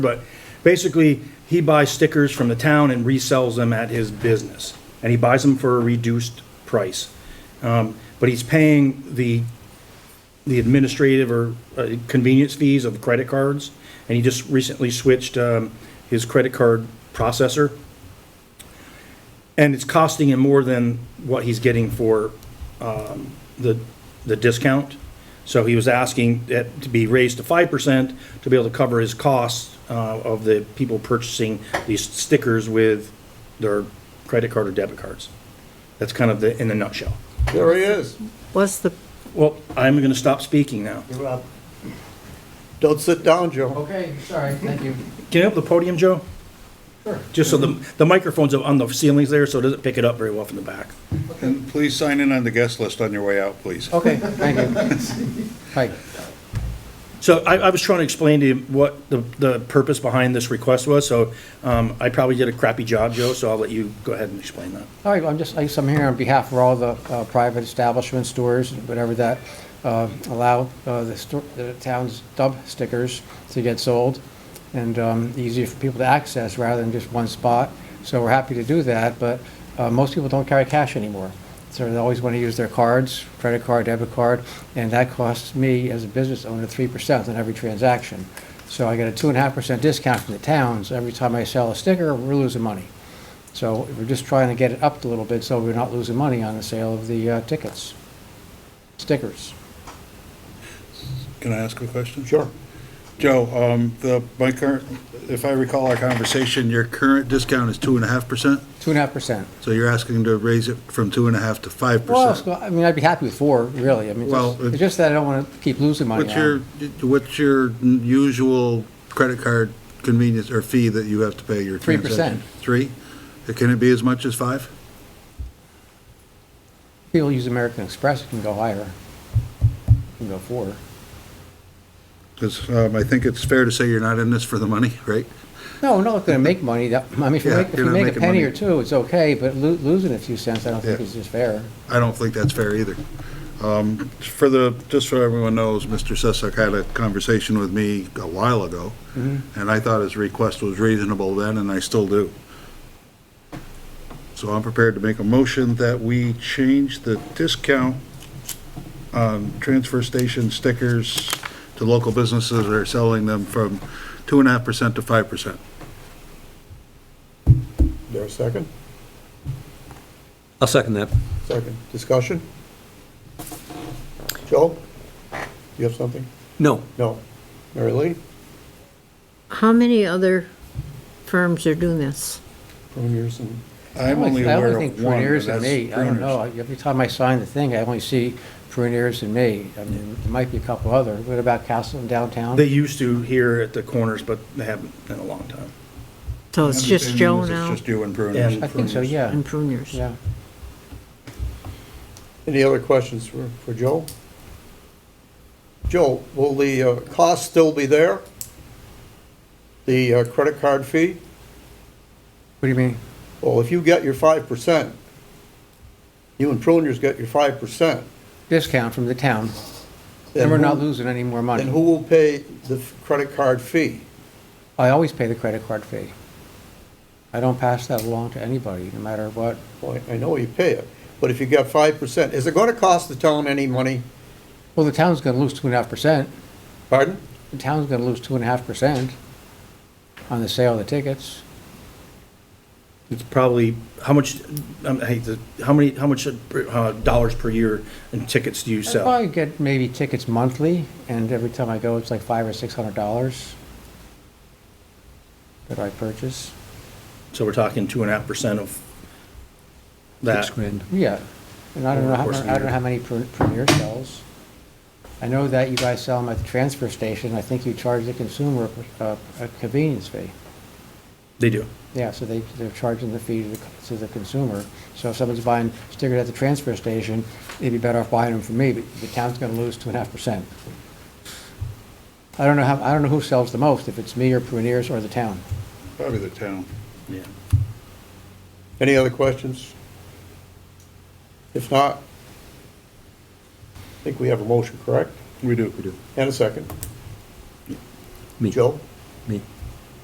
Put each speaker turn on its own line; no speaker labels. But basically, he buys stickers from the town and resells them at his business. And he buys them for a reduced price. Um, But he's paying the, the administrative or uh, convenience fees of credit cards. And he just recently switched um, his credit card processor. And it's costing him more than what he's getting for um, the, the discount. So he was asking that to be raised to 5% to be able to cover his costs uh, of the people purchasing these stickers with their credit card or debit cards. That's kind of the, in the nutshell.
There he is.
What's the,
Well, I'm going to stop speaking now.
You're up. Don't sit down, Joe.
Okay, sorry, thank you.
Can you up the podium, Joe?
Sure.
Just so the, the microphone's up on the ceilings there, so it doesn't pick it up very well from the back.
And please sign in on the guest list on your way out, please.
Okay, thank you. Hi.
So I, I was trying to explain to you what the, the purpose behind this request was, so um, I probably did a crappy job, Joe, so I'll let you go ahead and explain that.
All right, I'm just, I guess I'm here on behalf of all the uh, private establishments, stores, whatever that uh, allow uh, the sto- the town's dump stickers to get sold and um, easier for people to access rather than just one spot. So we're happy to do that, but uh, most people don't carry cash anymore. So they always want to use their cards, credit card, debit card, and that costs me as a business owner 3% on every transaction. So I get a 2.5% discount from the towns. Every time I sell a sticker, we're losing money. So we're just trying to get it up a little bit so we're not losing money on the sale of the uh, tickets, stickers.
Can I ask a question?
Sure.
Joe, um, the, my current, if I recall our conversation, your current discount is two and a half percent?
Two and a half percent.
So you're asking to raise it from two and a half to five
Well,
percent?
so, I mean, I'd be happy with four, really. I mean,
Well,
just- it's
it-
just that I don't want to keep losing money
What's your,
on
what's your usual credit card convenience or fee that you have to pay your
3%.
transaction? Three? Can it be as much as five?
People use American Express, it can go higher. It Can go four.
Because, um, I think it's fair to say you're not in this for the money, right?
No, we're not going to make money. That, I mean, if you
Yeah,
make, if you
you're not
make a
making
penny
money.
or two, it's okay, but lo- losing a few cents, I don't think
Yeah.
is just fair.
I don't think that's fair either. Um, For the, just so everyone knows, Mr. Sessek had a conversation with me a while ago, and I thought his request was reasonable then, and I still do. So I'm prepared to make a motion that we change the discount on transfer station stickers to local businesses that are selling them from 2.5% to 5%.
There a second?
I'll second that.
Second. Discussion? Joe? You have something?
No,
No. Mary Lee?
how many other firms are doing this?
Pruniers and,
I'm
I
only
I
aware
think
of one,
Pruneers and
and that's
me, I don't
Pruners.
know, every time I sign the thing, I only see Pruneers and me. I mean, there might be a couple other, what about Castle and downtown?
They used to here at the corners, but they haven't in a long time.
So
My
it's just
understanding
Joe
is
now
It's just you and Pruners.
And
I think so,
Pruners.
yeah,
and Pruners?
yeah.
any other questions for, for Joe? Joe, will the uh, cost still be there? The uh, credit card fee?
What do you mean?
Well, if you get your five percent, you and Pruniers get your five percent.
Discount from the town, and we're not losing any more
Then
money.
who will pay the f- credit card fee?
I always pay the credit card fee. I don't pass that along to anybody, no matter what.
Well, I I know you pay it, but if you got five percent, is it gonna cost the town any money?
Well, the town's gonna lose two and a half percent,
Pardon?
the town's gonna lose two and a half percent on the sale of the tickets.
It's probably, how much, um, I hate to, how many, how much uh, dollars per year in tickets do you
I
sell?
probably get maybe tickets monthly, and every time I go, it's like five or six hundred dollars that I purchase.
So we're talking two and a half percent of
six
that.
grand.
Yeah, and I don't
Over the
know, how-
course of the
I don't know
year.
how many Pre- Premier sells. I know that you guys sell them at the transfer station, I think you charge the consumer uh, a convenience fee.
They do.
Yeah, so they, they're charging the fee to the, to the consumer. So if someone's buying stickers at the transfer station, they'd be better off buying them from me, but the town's gonna lose two and a half percent. I don't know how, I don't know who sells the most, if it's me or Pruneers or the town.
Probably the town.
Yeah.
Any other questions? If not, I think we have a motion, correct?
We do. We do.
And a second.
Me.
Joe?
Me.